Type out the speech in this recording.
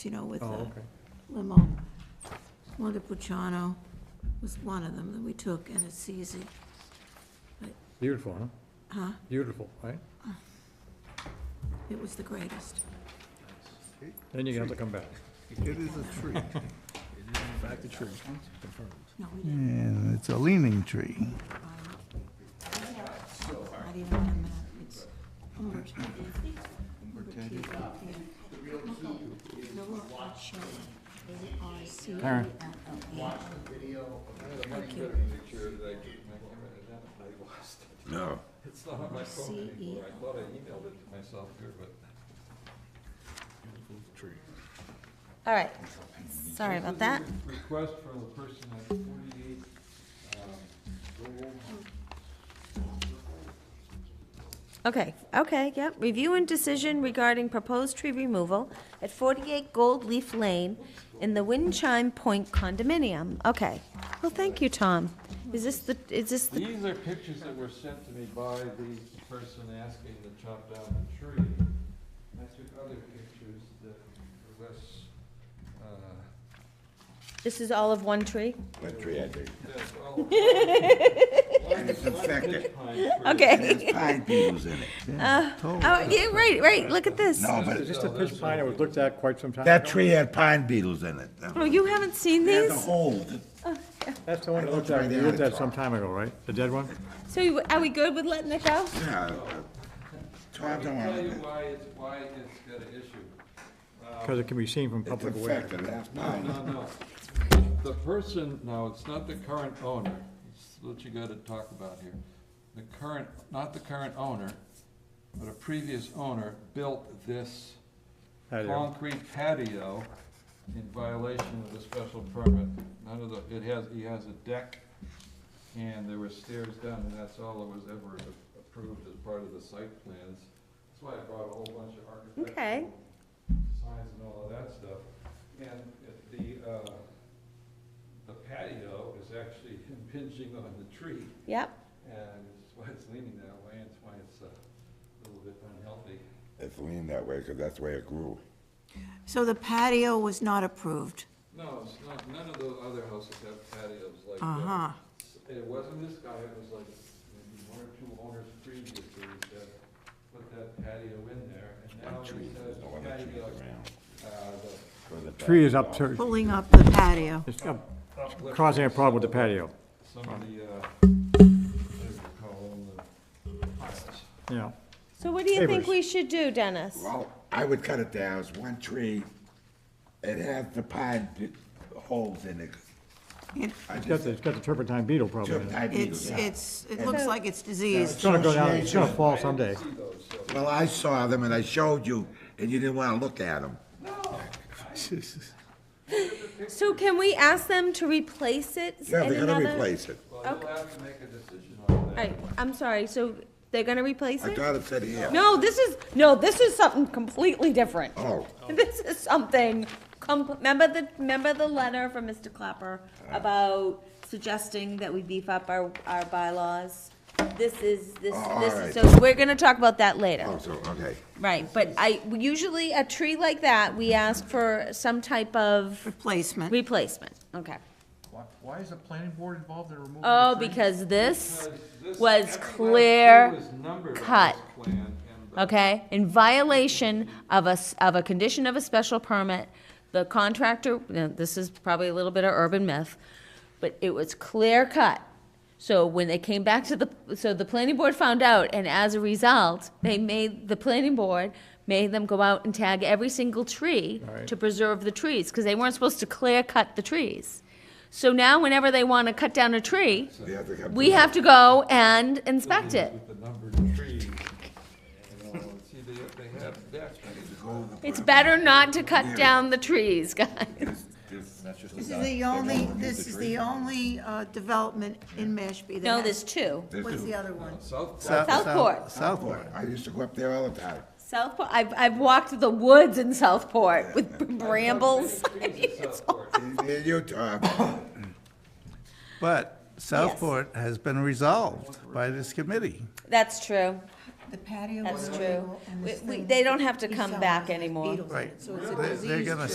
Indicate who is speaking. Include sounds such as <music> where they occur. Speaker 1: you know, with
Speaker 2: Oh,
Speaker 1: the
Speaker 2: okay.
Speaker 1: limo. Wanda Pucciano was one of them that we took, and it's easy.
Speaker 2: Beautiful, huh?
Speaker 1: Huh?
Speaker 2: Beautiful, right?
Speaker 1: It was the greatest.
Speaker 2: Then you're gonna have to come back.
Speaker 3: It is a tree.
Speaker 4: Back to tree.
Speaker 1: No, we didn't.
Speaker 3: And it's a leaning tree.
Speaker 2: Hmm.
Speaker 1: Not even one minute. It's Humber. Humber T. Yeah. Noel Archel, A-R-C-H-E-L.
Speaker 5: No.
Speaker 2: It's not on my
Speaker 1: phone anymore. I
Speaker 2: thought I emailed it to myself here, but.
Speaker 6: All right, sorry about that.
Speaker 2: Request from a person at forty-eight, um, Gold
Speaker 6: Okay, okay, yep. Review and decision regarding proposed tree removal at 48 Gold Leaf Lane in the Wind Chime Point condominium. Okay. Well, thank you, Tom. Is this the, is this the,
Speaker 2: These are pictures that were sent to me by the person asking to chop down the tree. I took other pictures that were less, uh,
Speaker 6: this is all of one tree?
Speaker 5: What tree I dig?
Speaker 2: that's all. It's
Speaker 5: infected.
Speaker 6: <laughs> Okay.
Speaker 5: Pine beetles in it.
Speaker 3: Yeah, totally.
Speaker 6: Oh, yeah, right, right, look at this.
Speaker 5: No,
Speaker 2: Is
Speaker 5: but
Speaker 2: this the pitch pine that was looked at quite some time?
Speaker 5: that tree had pine beetles in it.
Speaker 6: Oh, you haven't seen
Speaker 5: They had the
Speaker 6: these?
Speaker 5: hole.
Speaker 2: That's the one that
Speaker 5: It looked
Speaker 2: looked at,
Speaker 5: right
Speaker 2: you
Speaker 5: at
Speaker 2: looked
Speaker 5: it.
Speaker 2: at some time ago, right? The dead one?
Speaker 6: So you- are we good with letting it go?
Speaker 5: Yeah, uh, Tom don't want it.
Speaker 7: why it's, why it's got an issue.
Speaker 2: Because it can be seen from
Speaker 5: It's
Speaker 2: public way.
Speaker 5: infected, that's pine.
Speaker 7: No, no. The person, no, it's not the current owner, it's what you gotta talk about here. The current, not the current owner, but a previous owner built this
Speaker 2: Patio.
Speaker 7: concrete patio in violation of the special permit. None of the, it has, he has a deck, and there were stairs down, and that's all that was ever a- approved as part of the site plans. That's why I brought a whole bunch of architectural
Speaker 6: Okay.
Speaker 7: signs and all of that stuff. And if the, uh, the patio is actually <laughs> impinging on the tree,
Speaker 6: Yep.
Speaker 7: and it's why it's leaning that way, and it's why it's uh, a little bit unhealthy.
Speaker 5: It's lean that way, because that's the way it grew.
Speaker 1: So the patio was not approved.
Speaker 7: No, it's not, none of the other houses have patios like that.
Speaker 1: Uh-huh.
Speaker 7: It wasn't this guy, it was like maybe one or two owners previously that put that patio in there, and now
Speaker 5: One
Speaker 7: he
Speaker 5: tree,
Speaker 7: says
Speaker 5: there's no other trees
Speaker 7: patio,
Speaker 5: around.
Speaker 7: uh, the
Speaker 5: Where the
Speaker 2: Tree is
Speaker 5: patio
Speaker 2: up to,
Speaker 1: Pulling up the patio.
Speaker 2: it's up-
Speaker 7: uplift
Speaker 2: causing a
Speaker 7: of
Speaker 2: problem with the patio,
Speaker 7: Some of the, uh, what do you call them, the piles.
Speaker 2: yeah.
Speaker 6: So what do you think
Speaker 2: Neighbors.
Speaker 6: we should do, Dennis?
Speaker 5: Well, I would cut it down, it's one tree, it had the pine be- holes in it.
Speaker 1: It-
Speaker 5: I
Speaker 2: It's got
Speaker 5: just
Speaker 2: the, it's got the turpentine beetle problem
Speaker 5: took
Speaker 2: in it.
Speaker 5: pine
Speaker 1: It's,
Speaker 5: beetles out.
Speaker 1: it's, it looks like it's diseased.
Speaker 2: It's gonna go down, it's gonna fall someday.
Speaker 5: Well, I saw them and I showed you, and you didn't wanna look at them.
Speaker 6: So can we ask them to replace it in
Speaker 5: Yeah,
Speaker 6: another?
Speaker 5: they're gonna replace it.
Speaker 7: Well, you'll have to make a decision on
Speaker 6: All
Speaker 7: that.
Speaker 6: right, I'm sorry, so they're gonna replace
Speaker 5: I
Speaker 6: it?
Speaker 5: thought it said here.
Speaker 6: No, this is, no, this is something completely different.
Speaker 5: Oh,
Speaker 6: This is something, com- remember the, remember the letter from Mr. Clapper about suggesting that we beef up our, our bylaws? This is, this,
Speaker 5: Oh,
Speaker 6: this,
Speaker 5: all
Speaker 6: is-
Speaker 5: right.
Speaker 6: so we're gonna talk about that
Speaker 5: oh,
Speaker 6: later,
Speaker 5: so, okay.
Speaker 6: right, but I, usually a tree like that, we ask for some type of
Speaker 1: Replacement.
Speaker 6: replacement, okay.
Speaker 4: Why, why is the planning board involved in removing?
Speaker 6: Oh,
Speaker 4: the tree?
Speaker 6: because this
Speaker 7: This-
Speaker 6: was
Speaker 7: every last
Speaker 6: clear.
Speaker 7: tree was numbered on
Speaker 6: cut.
Speaker 7: this plan, and the-
Speaker 6: okay, in violation of a, s- of a condition of a special permit, the contractor, now, this is probably a little bit of urban myth, but it was clear cut. So when they came back to the, so the planning board found out, and as a result, they made, the planning board made them go out and tag every single tree
Speaker 2: Right.
Speaker 6: to preserve the trees, because they weren't supposed to clear cut the trees. So now whenever they want to cut down a tree,
Speaker 5: They have to come
Speaker 6: we
Speaker 5: to-
Speaker 6: have to go and inspect it.
Speaker 7: With the numbered trees, you know, and see, they, they have decks.
Speaker 6: It's better not to cut down the trees, guys.
Speaker 1: This is the only, this is the only uh, development in Mashpee that
Speaker 6: No,
Speaker 1: has-
Speaker 6: there's two.
Speaker 1: What's the other one?
Speaker 7: South
Speaker 3: South- south-
Speaker 6: Southport.
Speaker 3: Southport.
Speaker 5: I used to go up there all the time.
Speaker 6: Southport, I've, I've walked the woods in Southport with brambles.
Speaker 7: uh,
Speaker 5: In Utah,
Speaker 3: But Southport has been resolved by this committee.
Speaker 6: <laughs> That's true,
Speaker 1: The patio.
Speaker 6: that's
Speaker 1: was
Speaker 6: true.
Speaker 1: available and
Speaker 6: We,
Speaker 1: this
Speaker 6: we,
Speaker 1: thing-
Speaker 6: they don't have to come
Speaker 1: He's
Speaker 6: back
Speaker 1: selling
Speaker 6: anymore.
Speaker 1: beetles in it,
Speaker 3: Right.
Speaker 1: So it's a
Speaker 3: They- They're
Speaker 1: diseased
Speaker 3: gonna